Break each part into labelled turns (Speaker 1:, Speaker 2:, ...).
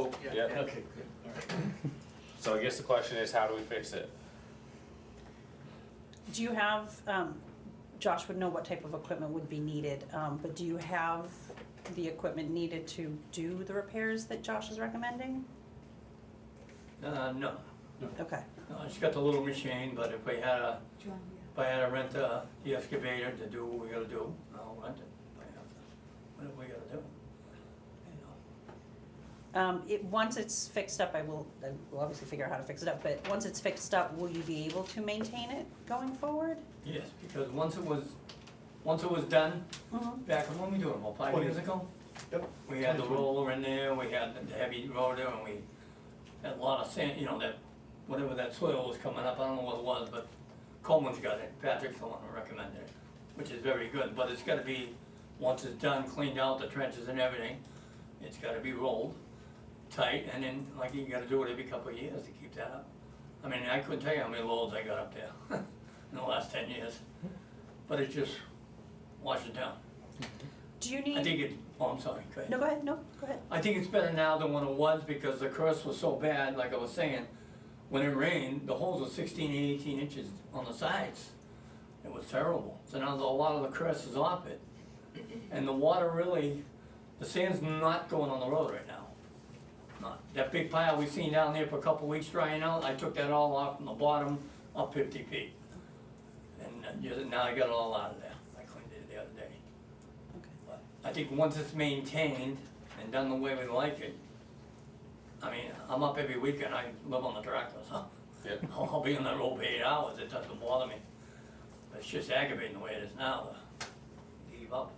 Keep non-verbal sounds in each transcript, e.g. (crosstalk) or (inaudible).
Speaker 1: Yeah.
Speaker 2: Okay, good, all right.
Speaker 1: So I guess the question is, how do we fix it?
Speaker 3: Do you have, um, Josh would know what type of equipment would be needed, um, but do you have the equipment needed to do the repairs that Josh is recommending?
Speaker 4: Uh, no,
Speaker 3: Okay,
Speaker 4: no, it's got the little machine, but if we had a, if I had to rent uh, the excavator to do what we gotta do, I'll rent it. If I have to. What we gotta do? You know.
Speaker 3: um, it, once it's fixed up, I will, I will obviously figure out how to fix it up, but once it's fixed up, will you be able to maintain it going forward?
Speaker 4: Yes, because once it was, once it was done,
Speaker 3: Mhm.
Speaker 4: back when we doing, about five
Speaker 2: Twenty.
Speaker 4: years ago?
Speaker 2: Yep.
Speaker 4: We had the
Speaker 2: 20.
Speaker 4: roller in there, we had the heavy roller, and we had a lot of sand, you know, that, whatever that soil was coming up, I don't know what it was, but Coleman's got it, Patrick's the one who recommended it, which is very good, but it's gotta be, once it's done, cleaned out the trenches and everything, it's gotta be rolled tight, and then, like, you gotta do it every couple of years to keep that up. I mean, I couldn't tell you how many loads I got up there (laughs) in the last ten years, but it just washes down.
Speaker 3: Do you
Speaker 4: I
Speaker 3: need,
Speaker 4: think it, oh, I'm sorry, go ahead.
Speaker 3: no, go ahead, no, go ahead.
Speaker 4: I think it's better now than when it was because the curse was so bad, like I was saying. When it rained, the holes were 16, 18 inches on the sides. It was terrible. So now the- a lot of the curse is off it. And the water really, the sand's not going on the road right now. Not, that big pile we seen down there for a couple weeks drying out, I took that all off from the bottom up 50 feet. And uh, yeah, now I got it all out of there. I cleaned it the other day. But I think once it's maintained and done the way we like it, I mean, I'm up every weekend, I live on the tractor, so (laughs)
Speaker 1: Yeah.
Speaker 4: I'll I'll be on that road for eight hours, it doesn't bother me. It's just aggravating the way it is now, uh, give up.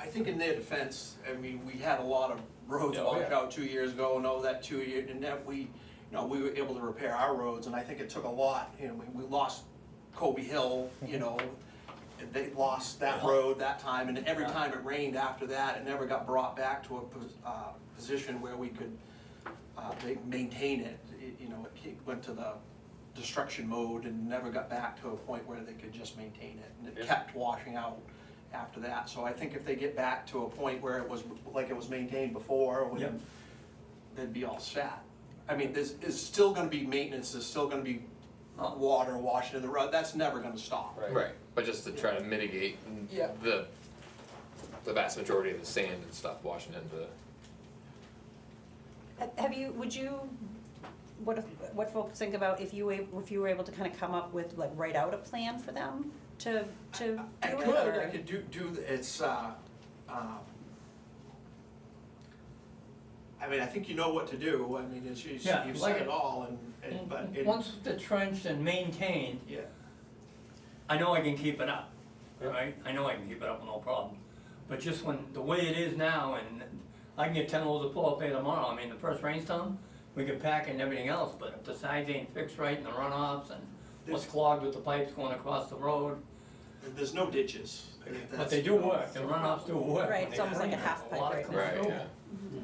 Speaker 5: I think in their defense, I mean, we had a lot of roads
Speaker 1: Yeah, oh,
Speaker 5: blocked
Speaker 1: yeah.
Speaker 5: out two years ago and all that two year, and that we, you know, we were able to repair our roads, and I think it took a lot, you know, we, we lost Kobe Hill,
Speaker 1: Mm-hmm.
Speaker 5: you know, and they lost that
Speaker 4: Yeah.
Speaker 5: road that time, and every
Speaker 4: Yeah.
Speaker 5: time it rained after that, it never got brought back to a, pos- uh, position where we could, uh, they maintain it, It- you know, it ke- went to the destruction mode and never got back to a point where they could just maintain it. And
Speaker 1: Yeah.
Speaker 5: it kept washing out after that, so I think if they get back to a point where it was, like it was maintained before,
Speaker 4: Yep.
Speaker 5: when, they'd be all set. I mean, there's, is still gonna be maintenance, there's still gonna be uh, water washing in the road, that's never gonna stop.
Speaker 1: Right.
Speaker 6: Right, but just to try to mitigate n-
Speaker 5: Yeah.
Speaker 6: the, the vast majority of the sand and stuff washing into,
Speaker 3: Ha- Uh, Have you, would you, what, if- what folks think about if you, wa- if you were able to kind of come up with, like, write out a plan for them to, to do
Speaker 5: I
Speaker 3: it,
Speaker 5: could, I
Speaker 3: or-
Speaker 5: could do, do, th- it's, uh, um, I mean, I think you know what to do, I mean, it's, you
Speaker 4: Yeah,
Speaker 5: you've
Speaker 4: like
Speaker 5: said it
Speaker 4: it.
Speaker 5: all, and,
Speaker 4: Mm-hmm.
Speaker 5: and, but, it-
Speaker 4: Once the trench and maintained,
Speaker 5: yeah.
Speaker 4: I know I can keep it up,
Speaker 1: Yeah.
Speaker 4: right? I know I can keep it up, no problem. But just when, the way it is now, and I can get ten loads of pull-up there tomorrow, I mean, the first rainstorm, we can pack and everything else, but if the sides ain't fixed right and the runoffs and what's clogged with the pipes going across the road,
Speaker 5: There's no ditches.
Speaker 4: but they do work, the runoffs do work.
Speaker 3: Right,
Speaker 4: when
Speaker 3: it's
Speaker 4: they
Speaker 3: almost like a
Speaker 4: clean it.
Speaker 3: half pipe
Speaker 4: lot
Speaker 3: right
Speaker 4: comes
Speaker 3: now.
Speaker 6: right,
Speaker 4: through.
Speaker 6: yeah.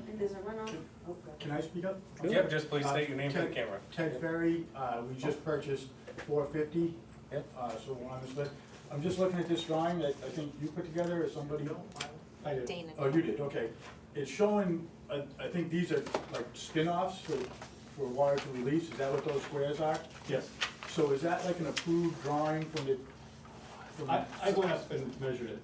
Speaker 7: And there's a runoff. Oh, God.
Speaker 2: Can I speak up?
Speaker 1: Yep, just please state your name for the
Speaker 2: Uh, Ted-
Speaker 1: camera.
Speaker 2: Ted Ferry, uh, we just purchased four fifty.
Speaker 1: Yep.
Speaker 2: Uh, so on this list, I'm just looking at this drawing that I think you put together or somebody. I did.
Speaker 8: Dana.
Speaker 2: Oh, you did, okay. It's showing, I, I think these are like spin-offs for, for water to release, is that what those squares are?
Speaker 9: Yes,
Speaker 2: So is that like an approved drawing from the? from the-
Speaker 9: I, I went up and measured it.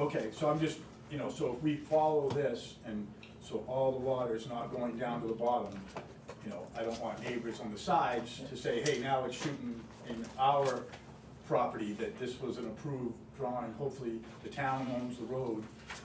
Speaker 2: Okay, so I'm just, you know, so if we follow this and so all the water is not going down to the bottom, you know, I don't want neighbors on the sides to say, hey, now it's shooting in our property, that this was an approved drawing, hopefully the town owns the road,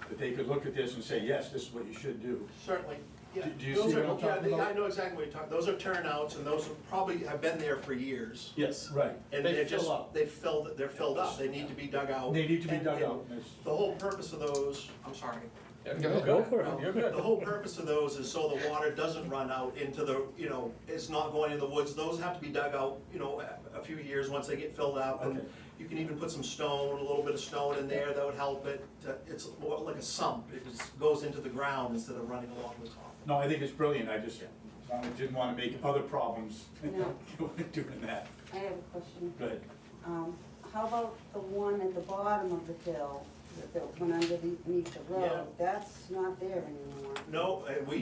Speaker 2: that they could look at this and say, yes, this is what you should do.
Speaker 5: Certainly, yeah.
Speaker 2: Do- do you
Speaker 5: Those
Speaker 2: see
Speaker 5: are-
Speaker 2: what I'm
Speaker 5: yeah,
Speaker 2: talking
Speaker 5: they-
Speaker 2: about?
Speaker 5: I know exactly what you're talking, those are turnouts, and those have probably have been there for years.
Speaker 9: Yes.
Speaker 2: Right.
Speaker 5: And
Speaker 9: They
Speaker 5: they're
Speaker 9: fill
Speaker 5: just,
Speaker 9: up.
Speaker 5: they filled, they're filled up, they need to be dug out.
Speaker 2: They need to be
Speaker 5: And-
Speaker 2: dug
Speaker 5: and
Speaker 2: out, and it's-
Speaker 5: The whole purpose of those, I'm sorry.
Speaker 6: Yeah, go ahead.
Speaker 1: for
Speaker 5: No, The whole purpose of those is so the water doesn't run out into the, you know, it's not going in the woods, those have to be dug out, you know, a, a few years, once they get filled up. And
Speaker 2: Okay.
Speaker 5: You can even put some stone, a little bit of stone in there, that would help it, to- it's more like a sump, it just goes into the ground instead of running along the top.
Speaker 2: No, I think it's brilliant, I just wanted- didn't wanna make other problems
Speaker 7: No.
Speaker 2: (laughs) doing that,
Speaker 7: I have a question.
Speaker 2: but,
Speaker 7: Um, how about the one at the bottom of the hill, that that went underneath the
Speaker 5: Yeah.
Speaker 7: road? That's not there anymore.
Speaker 5: No, and we